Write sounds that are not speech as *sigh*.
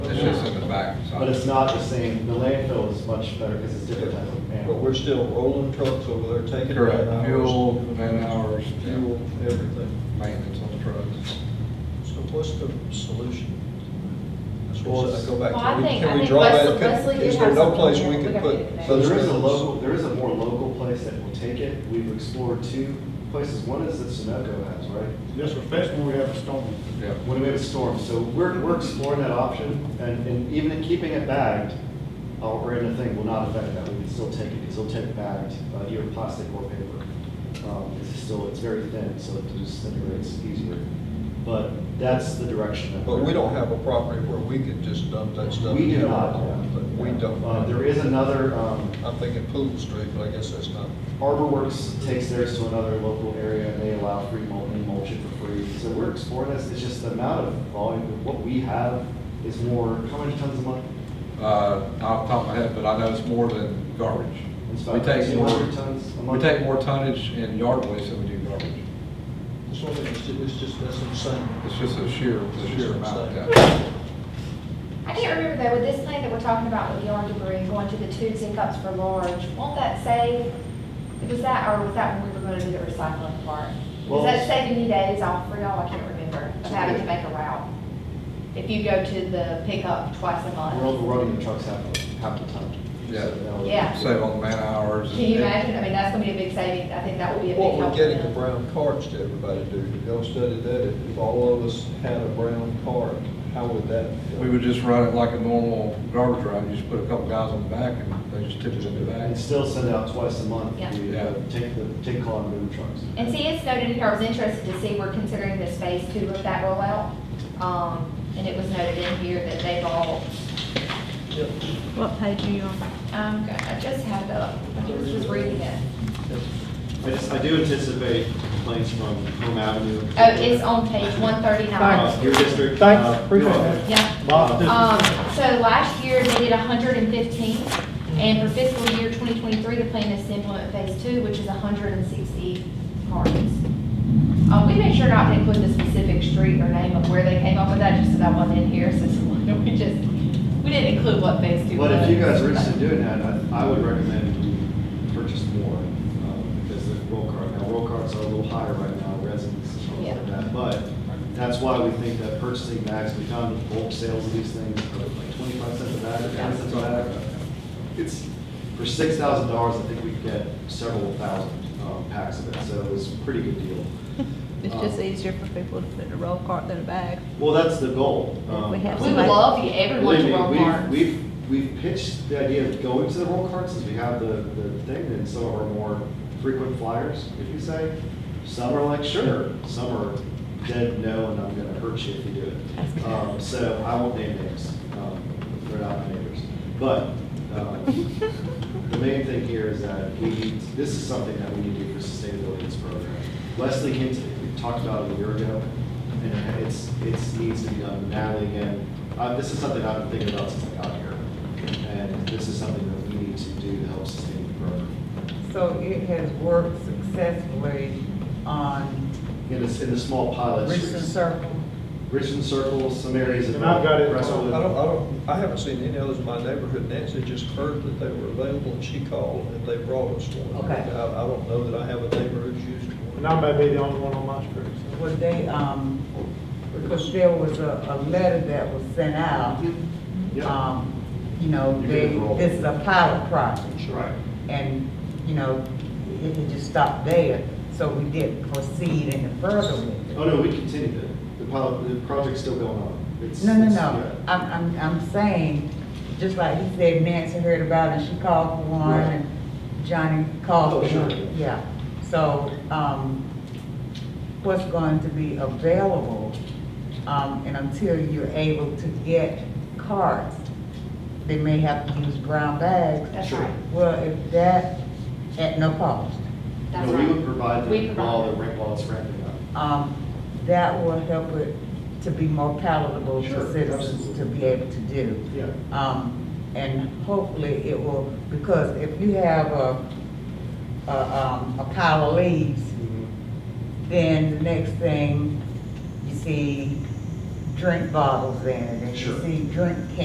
It's just in the back. But it's not the same, the landfill is much better because it's different type of But we're man. still rolling trucks over there, taking man Correct, hours. fuel, man hours, yeah, Fuel, everything. maintenance on the trucks. So what's the solution? That's Well, what I go back to. Well, I We- think- can I we think draw that- Wesley- can- Wesley did Is there have no something place there. we We can gotta put? get it So those there is a things? local, there is a more local place that will take it. We've explored two places. One is that Sunoco has, right? Yes, sir, especially when we have a storm. Yeah. When we have a storm, so we're, we're exploring that option, and, and even in keeping it bagged, uh, or in the thing will not affect that, we can still take it, because it'll take bagged, uh, either plastic or paper. Um, it's still, it's very thin, so it disintegrates easier, but that's the direction that. But we're- we don't have a property where we could just dump that stuff. We do down. not. But we Uh, don't. there is another, um, I'm thinking Pool Street, but I guess that's not. Arborworks takes theirs to another local area, and they allow free mulching, mulching for free. So we're exploring this, it's just the amount of volume, of what we have is more, how many tons a month? Uh, off the top of my head, but I know it's more than garbage. It's We about take more, 200 tons a we month. take more tonnage in yard waste than we do garbage. It's only, it's ju- it's just, that's insane. It's just a sheer, the sheer amount, yeah. Insane. I can't remember though, with this thing that we're talking about with yard debris going to the tubes and cups for large, won't that save? Was that, or was that when we were gonna do the recycling part? Well- Was that saving you days off for y'all? I can't remember, of having to make a route. If you go to the pickup twice a We're month. overrunning the trucks half, a- half the ton. Yeah. So that was- Yeah. Save on the man hours. Can you imagine? I mean, that's gonna be a big saving. I think that would be a big What we're help. to getting the them. brown carts to everybody, dude, y'all study that, if all of us had a brown cart, how would that? feel? We would just run it like a normal garbage route, you just put a couple guys on the back and they just tip it in the back. And still send out twice a month, Yeah. you Yeah. uh, take the, take call and move trucks. And see, it's noted in here, I was interested to see, we're considering this phase two of that rollout. Um, and it was noted in here that they've all, Yeah. What page are you on? um, I just had it up, I was just reading it. I just, I do anticipate complaints from Home Avenue. Oh, it's on page one Uh, thirty-nine. Your district. Thanks, uh, appreciate you're- that. Yeah. Bob, this is- Um, so last year, they did hundred and fifteen, and for fiscal year twenty twenty-three, the plan is to implement phase two, which is hundred and sixty cards. Um, we made sure not to include the specific street or name of where they came up with that, just so that wasn't in here, so *laughs* we just, we didn't include what phase two was. But if you guys are interested in doing that, I, I would recommend we purchase more, um, because the roll card, now roll cards are a little higher right now, residents and stuff like Yeah. that. But that's why we think that purchasing bags, we found the bulk sales of these things, are like twenty-five cents a bag, or ten cents a bag. It's, for six thousand dollars, I think we could get several thousand, um, packs of it, so it was a pretty good deal. It's just easier for people to put in a roll cart than a bag. *laughs* Well, that's the goal. um, We have We would love you, everyone Believe to me, roll we've, cards. we've, we've pitched the idea of going to the roll card since we have the, the thing and some of our more frequent flyers, if you say. Some are like, sure, some are dead, no, and I'm gonna hurt you if you do it. Um, so I won't name names, um, they're not my neighbors. But, um, the main thing here is that we need, this is something that we need to do for sustainability in this program. Wesley came to, we talked about it a year ago, and it's, it's needs to be done. Natalie, again, uh, this is something I've been thinking about since I got here. And this is something that we need to do to help sustain the program. So it has worked successfully on In this, in the small pilot Richardson streets. Circle. Richland Circle, some areas of. And I've got it. I Russell- don't, I don't, I haven't seen any others in my neighborhood, Nancy just heard that they were available, and she called, and they brought us one. Okay. I, I don't know that I have a neighbor who's used one. And I may be the only one on my street. so. Were they, um, because there was a, a letter that was sent out, Yeah, um, you know, You they, can enroll. this is a pilot project. right. And, you know, it, it just stopped there, so we didn't proceed any further with it. Oh, no, we continued it. The pilot, the project's still going on. It's- No, no, it's- no, yeah. I'm, I'm, I'm saying, just like he said, Nancy heard about it, she called for one, Right. and Johnny called Oh, for sure. one, yeah. So, um, what's going to be available, um, and until you're able to get cards, they may have to use brown bags. That's right, Well, if that, at no cost, that's No, we would right. provide We the, provide while it. the, ra- while it's ramping up. um, that will help it to be more palatable Sure, for citizens to absolutely. be able to do. Yeah. Um, and hopefully it will, because if you have a, a, um, a pile of leaves, Mm-hmm. then the next thing, you see drink bottles in it, and Sure. you see drink cans.